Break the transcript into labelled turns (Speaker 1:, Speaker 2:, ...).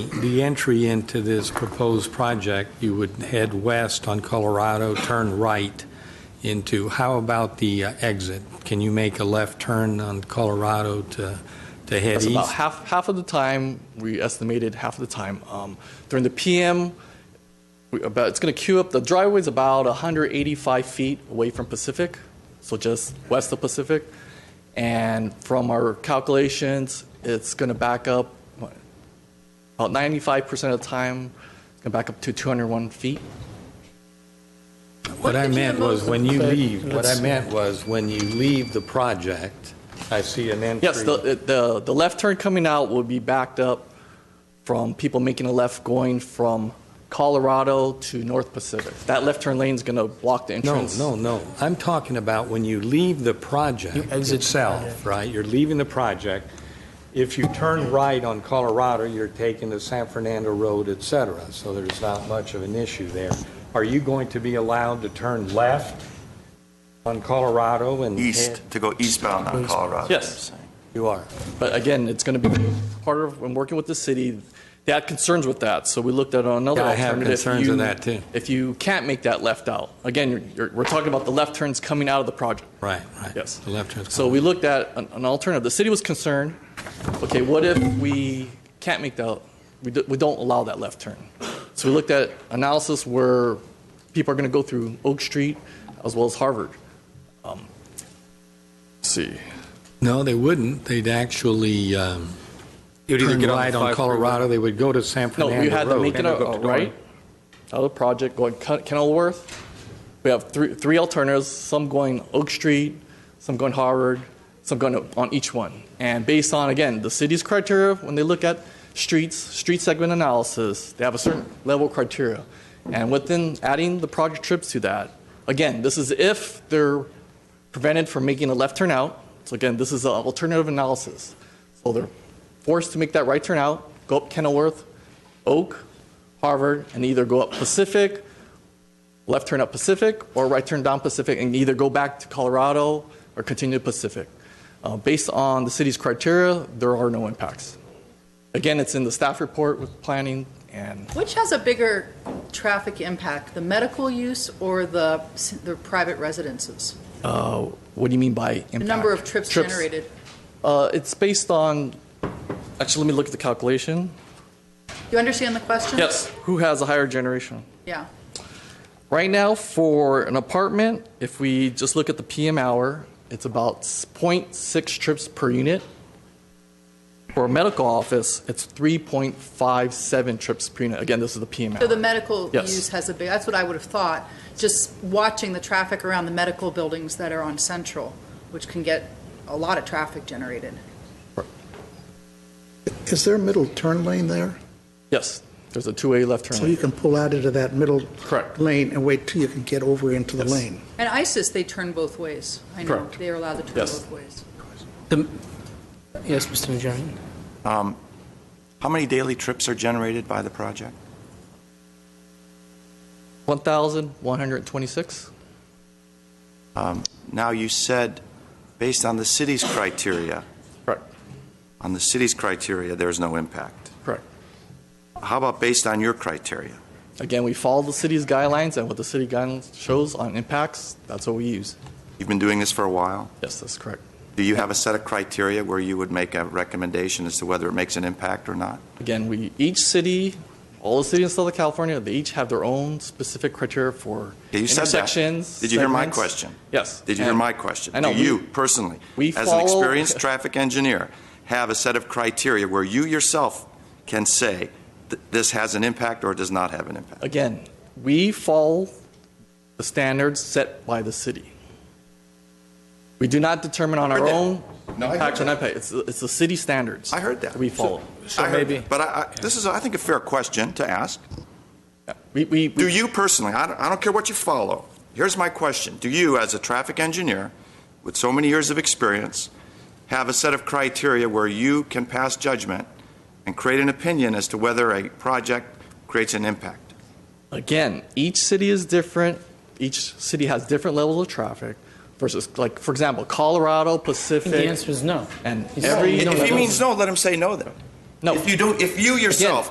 Speaker 1: the entry into this proposed project, you would head west on Colorado, turn right into, how about the uh, exit? Can you make a left turn on Colorado to, to head
Speaker 2: That's about
Speaker 1: east?
Speaker 2: half, half of the time, we estimated half of the time. Um, during the PM, we about, it's going to queue up, the driveway's about 185 feet away from Pacific, so just west of Pacific. And from our calculations, it's going to back up what, about 95% of the time, it's going to back up to 201 feet.
Speaker 1: What I meant was, when you
Speaker 3: Okay,
Speaker 1: leave, what I
Speaker 3: let's-
Speaker 1: meant was, when you leave the project, I see an entry.
Speaker 2: Yes, the, the, the left turn coming out will be backed up from people making a left going from Colorado to North Pacific. That left turn lane's going to block the
Speaker 1: No,
Speaker 2: entrance.
Speaker 1: no, no. I'm talking about when you leave the
Speaker 3: You
Speaker 1: project
Speaker 3: exit the
Speaker 1: itself,
Speaker 3: project.
Speaker 1: right? You're leaving the project. If you turn right on Colorado, you're taking the San Fernando Road, et cetera, so there's not much of an issue there. Are you going to be allowed to turn left on Colorado and?
Speaker 4: east, to go eastbound on Colorado.
Speaker 2: Yes,
Speaker 1: You are.
Speaker 2: but again, it's going to be part of, when working with the city, they had concerns with that, so we looked at another
Speaker 1: Yeah, I have
Speaker 2: alternative.
Speaker 1: concerns
Speaker 2: You-
Speaker 1: with that, too.
Speaker 2: If you can't make that left out, again, you're, you're, we're talking about the left turns coming out of the project.
Speaker 1: Right, right.
Speaker 2: Yes.
Speaker 1: The left turn.
Speaker 2: So we looked at an an alternative. The city was concerned, okay, what if we can't make the, we do- we don't allow that left turn? So we looked at analysis where people are going to go through Oak Street as well as Harvard. Um, let's See.
Speaker 1: No, they wouldn't. They'd actually um, turn right on Colorado. They would go to San
Speaker 2: No,
Speaker 1: Fernando Road.
Speaker 2: we had to make it a
Speaker 1: Go
Speaker 2: a
Speaker 1: up to
Speaker 2: right, out of project going Ken- Kenilworth. We have three three alternatives, some going Oak Street, some going Harvard, some going on each one. And based on, again, the city's criteria, when they look at streets, street segment analysis, they have a certain level of criteria. And within adding the project trips to that, again, this is if they're prevented from making a left turn out. So again, this is an alternative analysis. So they're forced to make that right turn out, go up Kenilworth, Oak, Harvard, and either go up Pacific, left turn up Pacific, or right turn down Pacific, and either go back to Colorado or continue to Pacific. Uh, based on the city's criteria, there are no impacts. Again, it's in the staff report with planning, and
Speaker 5: Which has a bigger traffic impact, the medical use or the, the private residences?
Speaker 2: uh, what do you mean by impact?
Speaker 5: The number of trips generated?
Speaker 2: Uh, it's based on. Actually, let me look at the calculation.
Speaker 5: You understand the question?
Speaker 2: Yes. Who has a higher generation?
Speaker 5: Yeah.
Speaker 2: Right now, for an apartment, if we just look at the PM hour, it's about s- 0.6 trips per unit. For a medical office, it's 3.57 trips per unit. Again, this is the PM
Speaker 5: So
Speaker 2: hour.
Speaker 5: the medical
Speaker 2: Yes.
Speaker 5: use has a big, that's what I would have thought, just watching the traffic around the medical buildings that are on Central, which can get a lot of traffic generated.
Speaker 3: Is there a middle turn lane there?
Speaker 2: Yes, there's a two-way left
Speaker 3: So
Speaker 2: turn.
Speaker 3: you
Speaker 2: lane.
Speaker 3: can pull out into that middle
Speaker 2: Correct.
Speaker 3: lane and wait till you can get over into the
Speaker 2: Yes.
Speaker 3: lane?
Speaker 5: And ISIS, they turn both ways. I know,
Speaker 2: Correct.
Speaker 5: they are allowed to turn
Speaker 2: Yes.
Speaker 5: both ways.
Speaker 3: The,
Speaker 6: Yes, Mr. Najarian.
Speaker 4: Um, How many daily trips are generated by the project?
Speaker 2: 1,126?
Speaker 4: Um, Now, you said, based on the city's criteria,
Speaker 2: Correct,
Speaker 4: on the city's criteria, there's no impact.
Speaker 2: correct.
Speaker 4: How about based on your criteria?
Speaker 2: Again, we follow the city's guidelines and what the city guidelines shows on impacts, that's what we use.
Speaker 4: You've been doing this for a while.
Speaker 2: Yes, that's correct.
Speaker 4: Do you have a set of criteria where you would make a recommendation as to whether it makes an impact or not?
Speaker 2: Again, we, each city, all the cities in Southern California, they each have their own specific criteria for
Speaker 4: Yeah, you said that.
Speaker 2: intersections.
Speaker 4: Did you hear my
Speaker 2: segments.
Speaker 4: question?
Speaker 2: Yes.
Speaker 4: Did you hear
Speaker 2: And-
Speaker 4: my question?
Speaker 2: I know.
Speaker 4: Do
Speaker 2: we-
Speaker 4: you personally,
Speaker 2: we
Speaker 4: as an
Speaker 2: follow-
Speaker 4: experienced traffic engineer, have a set of criteria where you yourself can say th- this has an impact or it does not have an impact?
Speaker 2: Again, we follow the standards set by the city. We do not determine on our
Speaker 4: heard that.
Speaker 2: own
Speaker 4: No, I heard
Speaker 2: impact or
Speaker 4: that.
Speaker 2: not impact. It's, the- it's the city standards.
Speaker 4: I heard that.
Speaker 2: We follow.
Speaker 4: I heard- But I, I, this is, I think, a fair question to ask.
Speaker 2: We, we,
Speaker 4: Do
Speaker 2: we,
Speaker 4: you personally, I don't, I don't care what you follow, here's my question. Do you, as a traffic engineer with so many years of experience, have a set of criteria where you can pass judgment and create an opinion as to whether a project creates an impact?
Speaker 2: again, each city is different. Each city has different levels of traffic versus, like, for example, Colorado, Pacific.
Speaker 6: The answer is no.
Speaker 2: And
Speaker 6: He's
Speaker 2: every-
Speaker 6: saying
Speaker 4: If
Speaker 6: no,
Speaker 4: he
Speaker 6: no.
Speaker 4: means no, let him say no then.
Speaker 2: No.
Speaker 4: If you don't, if you yourself